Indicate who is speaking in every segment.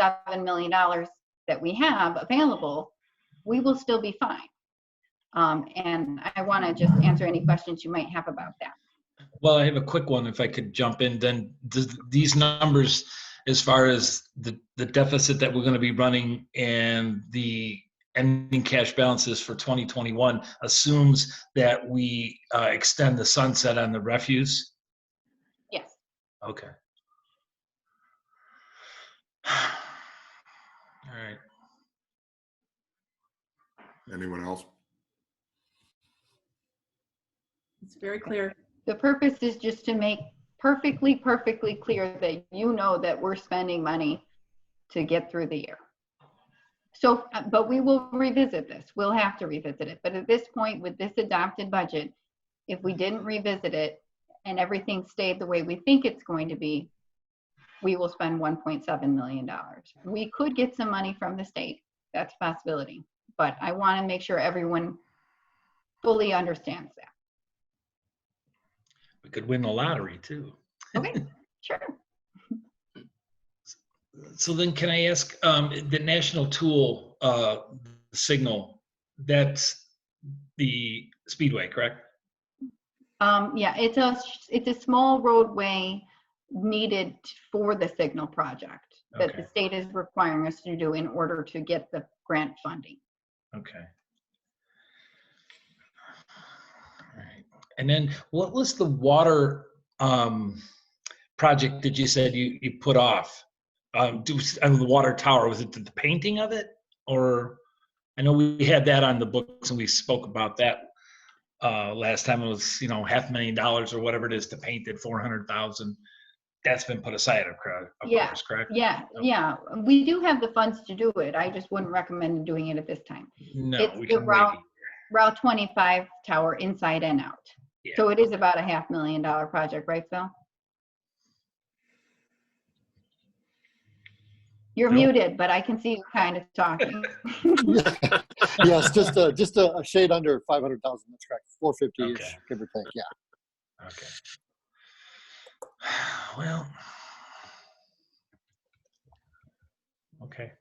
Speaker 1: seven million dollars that we have available, we will still be fine. Um, and I want to just answer any questions you might have about that.
Speaker 2: Well, I have a quick one if I could jump in. Then does these numbers, as far as the, the deficit that we're going to be running and the ending cash balances for 2021 assumes that we uh, extend the sunset on the refuse?
Speaker 1: Yes.
Speaker 2: Okay. All right.
Speaker 3: Anyone else?
Speaker 4: It's very clear.
Speaker 1: The purpose is just to make perfectly, perfectly clear that you know that we're spending money to get through the year. So, uh, but we will revisit this. We'll have to revisit it. But at this point, with this adopted budget, if we didn't revisit it and everything stayed the way we think it's going to be, we will spend $1.7 million. We could get some money from the state. That's a possibility. But I want to make sure everyone fully understands that.
Speaker 2: We could win the lottery too.
Speaker 1: Okay, sure.
Speaker 2: So then can I ask, um, the national tool, uh, signal, that's the speedway, correct?
Speaker 1: Um, yeah, it's a, s- it's a small roadway needed for the signal project that the
Speaker 2: Okay.
Speaker 1: state is requiring us to do in order to get the grant funding.
Speaker 2: Okay. Alright. And then what was the water, um, project that you said you, you put off? Um, do, on the water tower, was it the painting of it or? I know we had that on the books and we spoke about that, uh, last time it was, you know, half a million dollars or whatever it is to paint it, four hundred thousand. That's been put aside, of course, of
Speaker 1: Yeah.
Speaker 2: course, correct?
Speaker 1: Yeah,
Speaker 2: Okay.
Speaker 1: yeah, we do have the funds to do it. I just wouldn't recommend doing it at this time.
Speaker 2: No,
Speaker 1: It's
Speaker 2: we
Speaker 1: the
Speaker 2: can wait.
Speaker 1: route- Route 25 tower inside and out.
Speaker 2: Yeah.
Speaker 1: So it is about a half million dollar project, right, Phil? You're
Speaker 2: No.
Speaker 1: muted, but I can see you kind of talking.
Speaker 5: yes, just a, just a a shade under five hundred thousand. That's correct. Four fifty
Speaker 2: Okay.
Speaker 5: ish, give or take. Yeah.
Speaker 2: Okay. Well. Okay.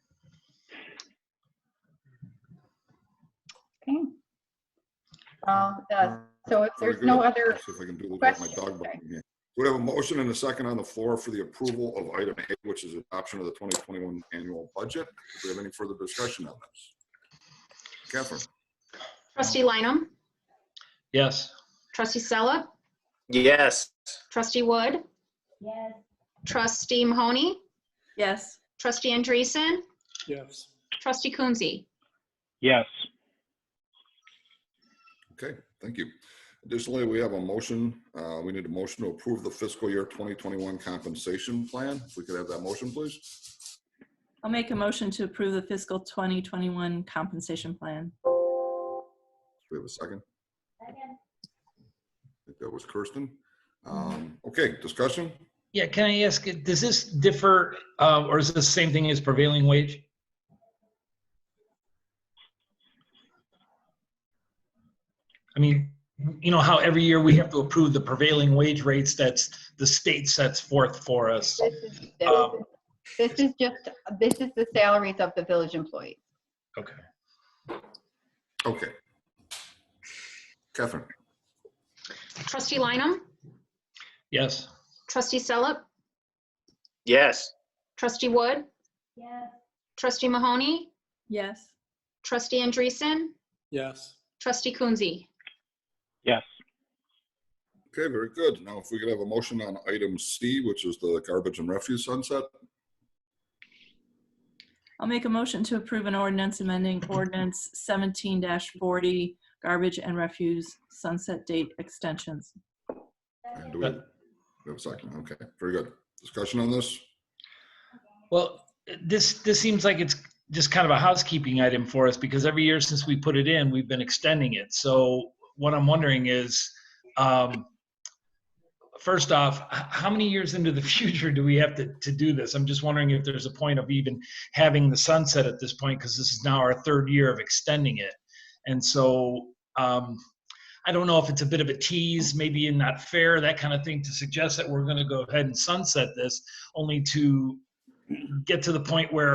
Speaker 1: Okay. Well, uh, so if
Speaker 3: Very
Speaker 1: there's no
Speaker 3: good.
Speaker 1: other,
Speaker 3: See if I can do this without my
Speaker 1: questions,
Speaker 3: dog
Speaker 1: sorry.
Speaker 3: barking here. We have a motion and a second on the floor for the approval of item A, which is adoption of the 2021 annual budget. Do we have any further discussion on this? Catherine?
Speaker 4: Trustee Lineham,
Speaker 2: Yes.
Speaker 4: trustee Sella,
Speaker 6: Yes.
Speaker 4: trustee Wood,
Speaker 7: Yes.
Speaker 4: trustee Mahoney,
Speaker 7: Yes.
Speaker 4: trustee Andreessen. Yes. Trustee Coonsey,
Speaker 6: Yes.
Speaker 3: Okay, thank you. Additionally, we have a motion, uh, we need a motion to approve the fiscal year 2021 compensation plan. If we could have that motion, please.
Speaker 7: I'll make a motion to approve the fiscal 2021 compensation plan.
Speaker 3: We have a second. I think that was Kirsten. Um, Okay, discussion?
Speaker 2: Yeah, can I ask, does this differ, uh, or is this the same thing as prevailing wage? I mean, you know how every year we have to approve the prevailing wage rates that's, the state sets forth for us?
Speaker 1: this is, this
Speaker 2: Um,
Speaker 1: is- this is just, this is the salaries of the village employees.
Speaker 2: Okay.
Speaker 3: Okay. Catherine?
Speaker 4: trustee Lineham,
Speaker 2: Yes.
Speaker 4: trustee Sella,
Speaker 6: Yes.
Speaker 4: trustee Wood,
Speaker 7: Yes.
Speaker 4: trustee Mahoney,
Speaker 7: Yes.
Speaker 4: trustee Andreessen,
Speaker 8: Yes.
Speaker 4: trustee Coonsey.
Speaker 6: Yes.
Speaker 3: Okay, very good. Now, if we could have a motion on item C, which is the garbage and refuse sunset.
Speaker 7: I'll make a motion to approve an ordinance amending ordinance 17-40 garbage and refuse sunset date extensions.
Speaker 3: And do we we have a second? Okay, very good. Discussion on this?
Speaker 2: Well, this, this seems like it's just kind of a housekeeping item for us because every year since we put it in, we've been extending it. So what I'm wondering is, um, first off, h- how many years into the future do we have to, to do this? I'm just wondering if there's a point of even having the sunset at this point because this is now our third year of extending it. And so, um, I don't know if it's a bit of a tease, maybe not fair, that kind of thing, to suggest that we're going to go ahead and sunset this only to get to the point where